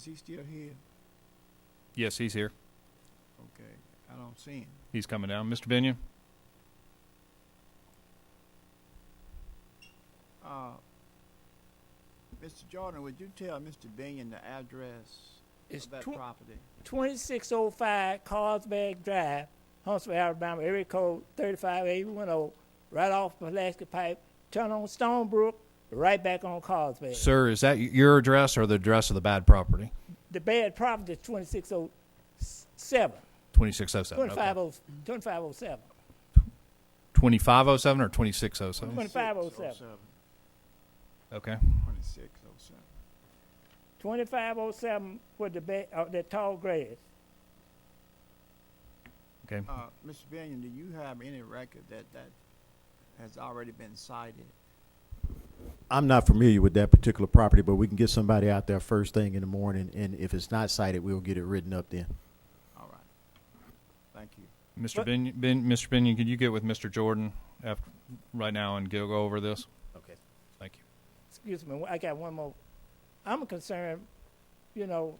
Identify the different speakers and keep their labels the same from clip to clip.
Speaker 1: Is he still here?
Speaker 2: Yes, he's here.
Speaker 1: Okay, I don't see him.
Speaker 2: He's coming down. Mr. Binion?
Speaker 1: Uh, Mr. Jordan, would you tell Mr. Binion the address
Speaker 3: It's
Speaker 1: of that
Speaker 3: twen-
Speaker 1: property?
Speaker 3: 2605 Carlsbad Drive, Huntsville, Alabama, area code 35810, oh, right off Pulaski Pipe, turn on Stonebrook, right back on Carlsbad.
Speaker 2: Sir, is that your address or the address of the bad property?
Speaker 3: The bad property is 2607,
Speaker 2: 2607. okay.
Speaker 3: 2507, 2507.
Speaker 2: 2507 or 2607?
Speaker 3: 2507.
Speaker 2: Okay.
Speaker 1: Twenty-six oh seven.
Speaker 3: 2507 with oh the, ba- uh, the tall grass.
Speaker 2: Okay.
Speaker 1: Uh, Mr. Binion, do you have any record that that has already been cited?
Speaker 4: I'm not familiar with that particular property, but we can get somebody out there first thing in the morning, and if it's not cited, we'll get it written up then.
Speaker 1: All right. Thank you.
Speaker 2: Mr.
Speaker 3: What-
Speaker 2: Binion, ben, Mr. Binion, could you get with Mr. Jordan after, right now and go go over this?
Speaker 4: Okay.
Speaker 2: Thank you.
Speaker 3: excuse me, I got one more. I'm concerned, you know,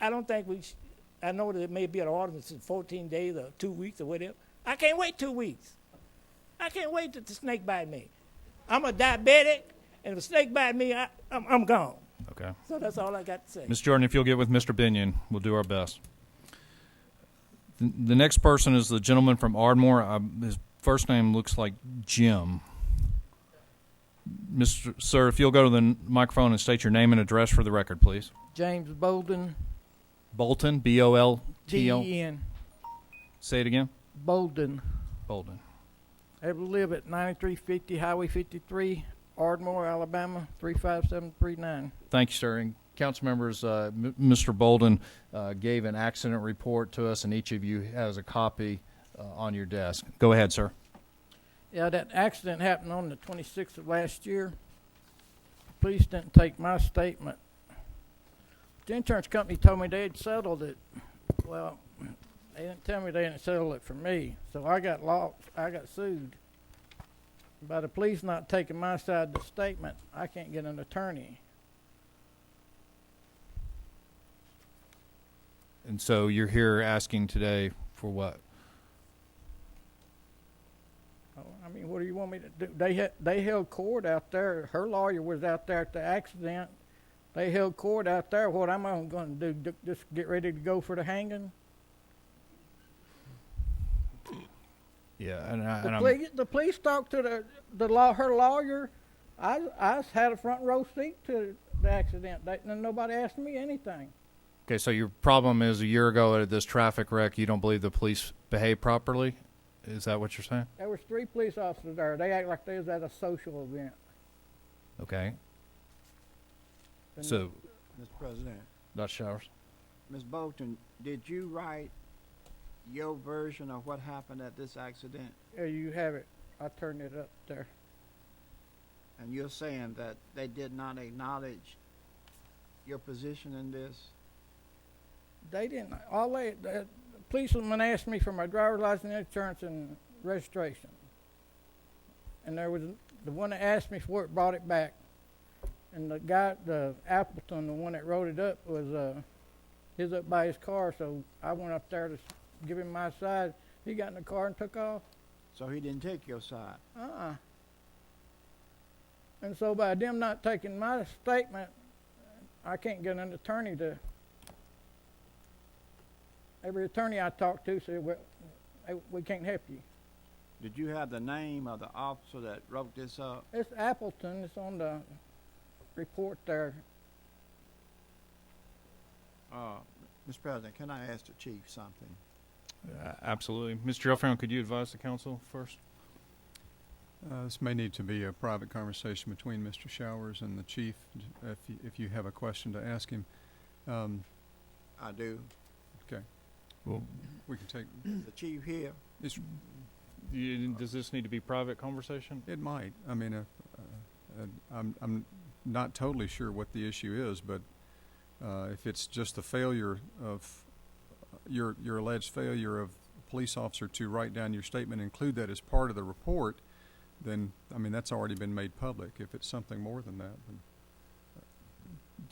Speaker 3: I don't think we, sh- I know that it may be an ordinance in 14 days or two weeks or whatever. I can't wait two weeks. I can't wait to the snake bite me. I'm a diabetic, and if a snake bite me, I, I'm, I'm gone.
Speaker 2: Okay.
Speaker 3: So that's all I got to say.
Speaker 2: Mr. Jordan, if you'll get with Mr. Binion, we'll do our best. The, the next person is the gentleman from Ardmore. Um, his first name looks like Jim. Mr. Sir, if you'll go to the n- microphone and state your name and address for the record, please.
Speaker 5: James Bolden,
Speaker 2: Bolton, B O L T O.
Speaker 5: T-E-N,
Speaker 2: Say it again.
Speaker 5: Bolden.
Speaker 2: Bolton.
Speaker 5: Ever live at 9350 Highway 53, Ardmore, Alabama, 35739.
Speaker 2: Thank you, sir. And council members, uh, M- Mr. Bolden uh, gave an accident report to us, and each of you has a copy uh, on your desk. Go ahead, sir.
Speaker 5: Yeah, that accident happened on the 26th of last year. Police didn't take my statement. The insurance company told me they had settled it. Well, they didn't tell me they didn't settle it for me, so I got lost. I got sued. By the police not taking my side of the statement, I can't get an attorney.
Speaker 2: And so you're here asking today for what?
Speaker 5: Oh, I mean, what do you want me to do? They had, they held court out there. Her lawyer was out there at the accident. They held court out there. What am I going to do? Ju- Just get ready to go for the hanging?
Speaker 2: Yeah, and, I,
Speaker 5: The,
Speaker 2: and I'm,
Speaker 5: police, the police talked to the the law. Her lawyer. I I had a front row seat to the accident. They, and nobody asked me anything.
Speaker 2: okay. So your problem is a year ago at this traffic wreck, you don't believe the police behaved properly. Is that what you're saying?
Speaker 5: There was three police officers there. They act like they was at a social event.
Speaker 2: Okay.
Speaker 5: And
Speaker 2: So,
Speaker 1: Mr. President,
Speaker 2: Dr. Showers.
Speaker 1: Ms. Bolton, did you write your version of what happened at this accident?
Speaker 5: there you have it. I turned it up there.
Speaker 1: And you're saying that they did not acknowledge your position in this?
Speaker 5: They didn't. All they, the policeman asked me for my driver's license, insurance, and registration. And there was the one that asked me for it brought it back. And the guy, the Appleton, the one that wrote it up, was uh, his up by his car. So I went up there to s- give him my side. He got in the car and took off.
Speaker 1: So he didn't take your side.
Speaker 5: Uh-uh. And so by them not taking my statement, I can't get an attorney to. Every attorney I talked to said, well, eh, we can't help you.
Speaker 1: Did you have the name of the officer that wrote this up?
Speaker 5: It's Appleton, it's on the report there.
Speaker 1: Uh, Mr. President, can I ask the chief something?
Speaker 2: Uh, absolutely, Mr. Gelfand. Could you advise the council first?
Speaker 6: Uh, This may need to be a private conversation between Mr. Showers and the chief, d- if you, if you have a question to ask him. Um,
Speaker 1: I do.
Speaker 6: We can take,
Speaker 1: The chief here,
Speaker 6: it's,
Speaker 2: You, does this need to be private conversation?
Speaker 6: it might, I mean, if, uh, uh, I'm, I'm not totally sure what the issue is, but uh, if it's just the failure of, uh, your, your alleged failure of a police officer to write down your statement, include that as part of the report, then, I mean, that's already been made public. If it's something more than that, then